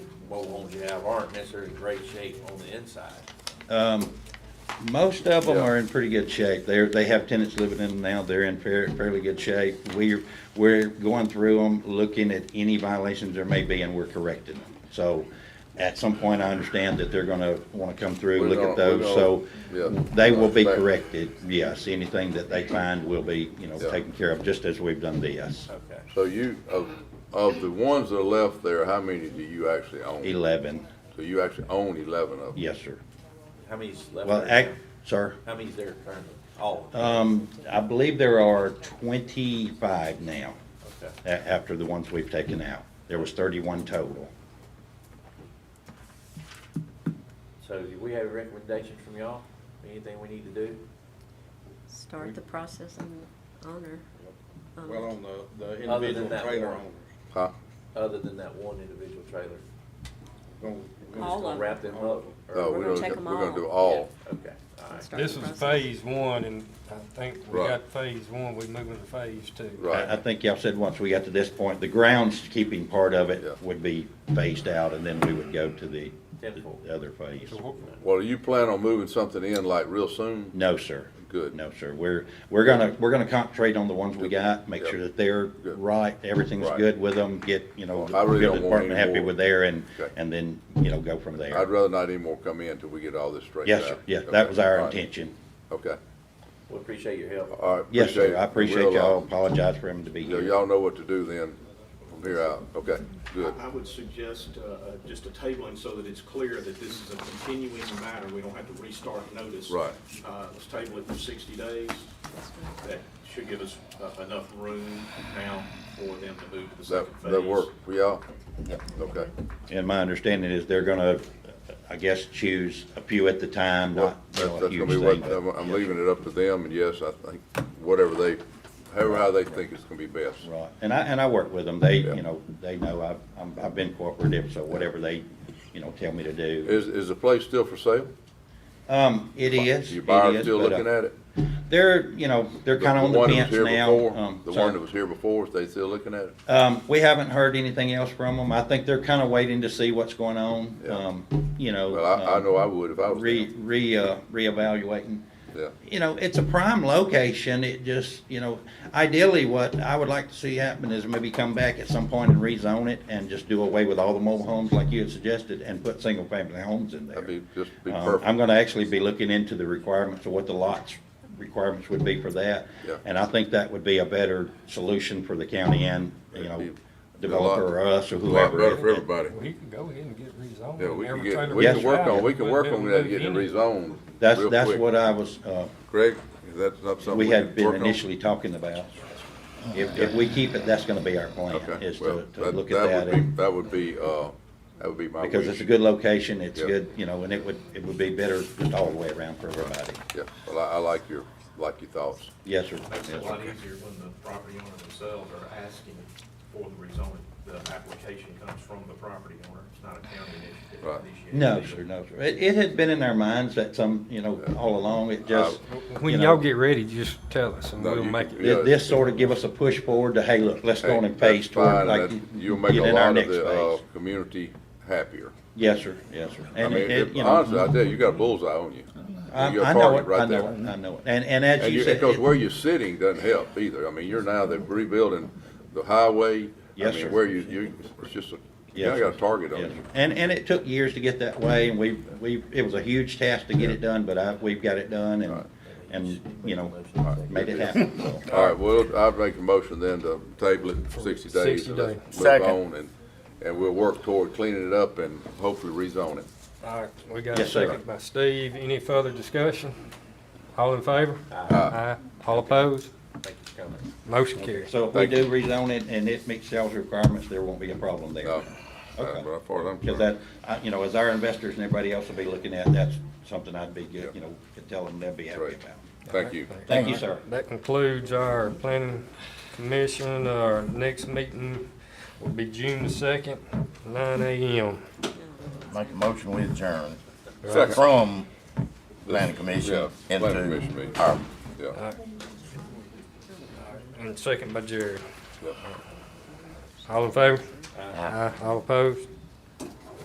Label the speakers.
Speaker 1: boat homes you have aren't necessarily in great shape on the inside.
Speaker 2: Um, most of them
Speaker 3: Yeah.
Speaker 2: are in pretty good shape. They're, they have tenants living in them now. They're in fair- fairly good shape. We're, we're going through them, looking at any violations there may be, and we're correcting them. So at some point, I understand that they're gonna wanna come through,
Speaker 3: We're
Speaker 2: look at
Speaker 3: gonna- we're
Speaker 2: those, so
Speaker 3: gonna- yeah,
Speaker 2: they will be
Speaker 3: I expect-
Speaker 2: corrected, yes. Anything that they find will be, you know,
Speaker 3: Yeah.
Speaker 2: taken care of, just as we've done this.
Speaker 1: Okay.
Speaker 3: So you, of, of the ones that are left there, how many do you actually own?
Speaker 2: Eleven,
Speaker 3: So you actually own eleven of them?
Speaker 2: yes, sir.
Speaker 1: How many's left?
Speaker 2: Well,
Speaker 1: there?
Speaker 2: act, sir,
Speaker 1: How many's there currently? All of them?
Speaker 2: um, I believe there are twenty-five now.
Speaker 3: Oh.
Speaker 1: Okay.
Speaker 2: a- after the ones we've taken out. There was thirty-one total.
Speaker 1: So do we have recommendations from y'all? Anything we need to do?
Speaker 4: Start the process on the owner. um,
Speaker 5: Well, on the, the
Speaker 1: Other than
Speaker 5: individual
Speaker 1: that
Speaker 5: trailer
Speaker 1: one.
Speaker 5: owners.
Speaker 3: Huh?
Speaker 1: Other than that one individual trailer?
Speaker 5: We're gonna- we're gonna-
Speaker 4: All
Speaker 1: Just gonna
Speaker 4: of them.
Speaker 1: Wrap them up? or-
Speaker 3: No,
Speaker 4: We're
Speaker 3: we
Speaker 4: gonna
Speaker 3: don't-
Speaker 4: check 'em
Speaker 3: We're gonna
Speaker 4: all.
Speaker 3: do all.
Speaker 1: Okay, all right.
Speaker 4: start the
Speaker 6: This is
Speaker 4: process.
Speaker 6: phase one, and I think we
Speaker 3: Right.
Speaker 6: got phase one, we moving to phase two.
Speaker 3: Right.
Speaker 2: I, I think y'all said once we got to this point, the groundskeeping part of
Speaker 3: Yeah.
Speaker 2: it would be phased out, and then we would go to the,
Speaker 1: Tenfold.
Speaker 2: the other phase.
Speaker 6: So what-
Speaker 3: Well, do you plan on moving something in like real soon?
Speaker 2: No, sir.
Speaker 3: Good.
Speaker 2: No, sir. We're, we're gonna, we're gonna concentrate on the ones we got, make sure that they're
Speaker 3: Good.
Speaker 2: right, everything's
Speaker 3: Right.
Speaker 2: good with them, get, you know,
Speaker 3: Well, I really
Speaker 2: get the
Speaker 3: don't want any
Speaker 2: department happy
Speaker 3: more.
Speaker 2: with there, and,
Speaker 3: Okay.
Speaker 2: and then, you know, go from
Speaker 3: I'd
Speaker 2: there.
Speaker 3: rather not any more come in till we get all this straightened out.
Speaker 2: Yes, sir. Yeah,
Speaker 3: Okay.
Speaker 2: that was our
Speaker 3: All right.
Speaker 2: intention.
Speaker 3: Okay,
Speaker 1: We appreciate your help.
Speaker 3: all right.
Speaker 2: Yes, sir.
Speaker 3: it.
Speaker 2: I appreciate
Speaker 3: We'll, uh,
Speaker 2: y'all. Apologize for him to be
Speaker 3: yeah,
Speaker 2: here.
Speaker 3: Y'all know what to do then, from here out. Okay, good.
Speaker 7: I would suggest uh, uh, just a tabling so that it's clear that this is a continuing matter. We don't have to restart notice.
Speaker 3: Right.
Speaker 7: Uh, Let's table it for 60 days. That should give us uh, enough room now for them to move to the
Speaker 3: That,
Speaker 7: second phase.
Speaker 3: that work for y'all? Okay,
Speaker 2: And my understanding is they're gonna, I guess, choose a few at the time,
Speaker 3: well,
Speaker 2: not you
Speaker 3: that's
Speaker 2: know,
Speaker 3: that's
Speaker 2: a
Speaker 3: gonna
Speaker 2: huge
Speaker 3: be what,
Speaker 2: thing.
Speaker 3: I'm
Speaker 2: but-
Speaker 3: I'm leaving it up to them, and yes, I think, whatever they, however, how they think it's gonna be best.
Speaker 2: Right, and I, and I work with them, they,
Speaker 3: Yeah.
Speaker 2: you know, they know I've, I'm- I've been cooperative, so whatever they, you know, tell me to do.
Speaker 3: Is, is the place still for sale?
Speaker 2: Um, it is,
Speaker 3: Your
Speaker 2: it
Speaker 3: buyer
Speaker 2: is,
Speaker 3: still
Speaker 2: but
Speaker 3: looking
Speaker 2: uh,
Speaker 3: at it?
Speaker 2: they're, you know, they're kinda on the
Speaker 3: one that was
Speaker 2: fence
Speaker 3: here
Speaker 2: now.
Speaker 3: before,
Speaker 2: Um,
Speaker 3: The
Speaker 2: sorry.
Speaker 3: one that was here before, is they still looking at it?
Speaker 2: Um, we haven't heard anything else from them, I think they're kinda waiting to see what's going on,
Speaker 3: Yeah.
Speaker 2: um, you know.
Speaker 3: Well, I, I
Speaker 2: um,
Speaker 3: know I would if I was
Speaker 2: Re,
Speaker 3: them.
Speaker 2: re, uh, reevaluating.
Speaker 3: Yeah,
Speaker 2: you know, it's a prime location. It just, you know, ideally what I would like to see happen is maybe come back at some point and rezone it and just do away with all the mobile homes like you had suggested and put single family homes in there.
Speaker 3: that'd be, just be
Speaker 2: Um,
Speaker 3: perfect.
Speaker 2: I'm gonna actually be looking into the requirements of what the lots requirements would be for that.
Speaker 3: Yeah.
Speaker 2: And I think that would be a better solution for the county and, you
Speaker 3: It'd be-
Speaker 2: know,
Speaker 3: it'd be a lot-
Speaker 2: developer or us or
Speaker 3: A lot
Speaker 2: whoever.
Speaker 3: better for everybody.
Speaker 6: We can go ahead and get rezoned.
Speaker 3: Yeah, we can
Speaker 6: Every
Speaker 3: get,
Speaker 6: trailer
Speaker 3: we can
Speaker 2: Yes,
Speaker 6: we
Speaker 3: work
Speaker 6: got,
Speaker 3: on, we can
Speaker 6: we'll
Speaker 3: work
Speaker 6: be able
Speaker 3: on
Speaker 6: to
Speaker 3: that,
Speaker 6: move
Speaker 3: getting it
Speaker 6: in it.
Speaker 3: rezoned.
Speaker 2: That's,
Speaker 3: real
Speaker 2: that's
Speaker 3: quick.
Speaker 2: what I was, uh,
Speaker 3: Greg, is that not something we
Speaker 2: we
Speaker 3: can
Speaker 2: had been
Speaker 3: work on?
Speaker 2: initially talking about. If, if we keep it, that's gonna be our plan,
Speaker 3: Okay,
Speaker 2: is
Speaker 3: well,
Speaker 2: to, to
Speaker 3: that,
Speaker 2: look at that.
Speaker 3: that would be,
Speaker 2: and-
Speaker 3: that would be, uh, that would be my wish.
Speaker 2: Because it's a good location, it's
Speaker 3: Yeah.
Speaker 2: good, you know, and it would, it would be better just all the way around for everybody.
Speaker 3: Yeah, well, I, I like your, like your thoughts.
Speaker 2: Yes, sir.
Speaker 7: Makes it a
Speaker 2: Yes,
Speaker 7: lot
Speaker 2: sir.
Speaker 7: easier when the property owner themselves are asking for the rezoning. The application comes from the property owner. It's not a county initiative.
Speaker 3: Right.
Speaker 7: initiated.
Speaker 2: No, sir, no, sir. It, it had been in our minds that some, you know, all along, it just, you
Speaker 6: When
Speaker 2: know,
Speaker 6: y'all get ready, just tell us, and
Speaker 3: No,
Speaker 6: we'll
Speaker 3: you
Speaker 6: make
Speaker 3: can-
Speaker 6: it.
Speaker 3: yeah,
Speaker 2: thi- This sort of give us a push forward to, hey, look, let's go on and
Speaker 3: Hey,
Speaker 2: pace
Speaker 3: that's
Speaker 2: toward
Speaker 3: fine,
Speaker 2: like,
Speaker 3: and that- You'll make
Speaker 2: get
Speaker 3: a
Speaker 2: in our
Speaker 3: lot of
Speaker 2: next
Speaker 3: the, uh,
Speaker 2: phase.
Speaker 3: community happier.
Speaker 2: Yes, sir, yes, sir.
Speaker 3: I
Speaker 2: And
Speaker 3: mean,
Speaker 2: it, it,
Speaker 3: if-
Speaker 2: you
Speaker 3: honestly, I
Speaker 2: know, Mm-hmm.
Speaker 3: tell you, you got a bullseye on you.
Speaker 2: I,
Speaker 3: You're a
Speaker 2: I know
Speaker 3: target
Speaker 2: it,
Speaker 3: right
Speaker 2: I know
Speaker 3: there.
Speaker 2: it, I know it. And, and as
Speaker 3: And
Speaker 2: you
Speaker 3: you,
Speaker 2: said.
Speaker 3: because
Speaker 2: it-
Speaker 3: where you're sitting doesn't help either. I mean, you're now, they're rebuilding the highway.
Speaker 2: Yes,
Speaker 3: I mean,
Speaker 2: sir.
Speaker 3: where you, you, it's just, a- you
Speaker 2: Yes,
Speaker 3: now got a
Speaker 2: sir.
Speaker 3: target on
Speaker 2: Yes,
Speaker 3: you.
Speaker 2: sir. And, and it took years to get that way, and we, we, it was a huge task to get it done, but I, we've got it done, and, and, you know, made it happen, so.
Speaker 3: All right, well, I'd make a motion then to table it for sixty days.
Speaker 6: 60
Speaker 3: and let's
Speaker 6: days.
Speaker 3: move on, And, and we'll work toward cleaning it up and hopefully rezone it.
Speaker 6: All right, we got a
Speaker 2: Yes, sir.
Speaker 6: second by Steve. Any further discussion? All in favor? Aye. All opposed?
Speaker 1: Thank you for coming.
Speaker 6: Motion carries.
Speaker 2: So if we do rezone it and it meets sales requirements, there won't be a problem there.
Speaker 3: No,
Speaker 2: Okay.
Speaker 3: but as far as I'm
Speaker 2: Because
Speaker 3: concerned,
Speaker 2: that, I- you know, as our investors and everybody else will be looking at, that's something I'd be good, you know, could tell them they'd be happy
Speaker 3: Right.
Speaker 2: about.
Speaker 3: thank you.
Speaker 2: Thank you, sir.
Speaker 6: That concludes our planning commission. Our next meeting will be June the second, nine AM.
Speaker 8: Make a motion, we adjourn
Speaker 3: Second.
Speaker 8: from planning Um, commission
Speaker 3: Yeah, planning commission
Speaker 8: into
Speaker 3: meeting.
Speaker 8: our
Speaker 3: Yeah,
Speaker 6: And second by Jerry.
Speaker 3: yeah.
Speaker 6: All in favor? Aye. All opposed?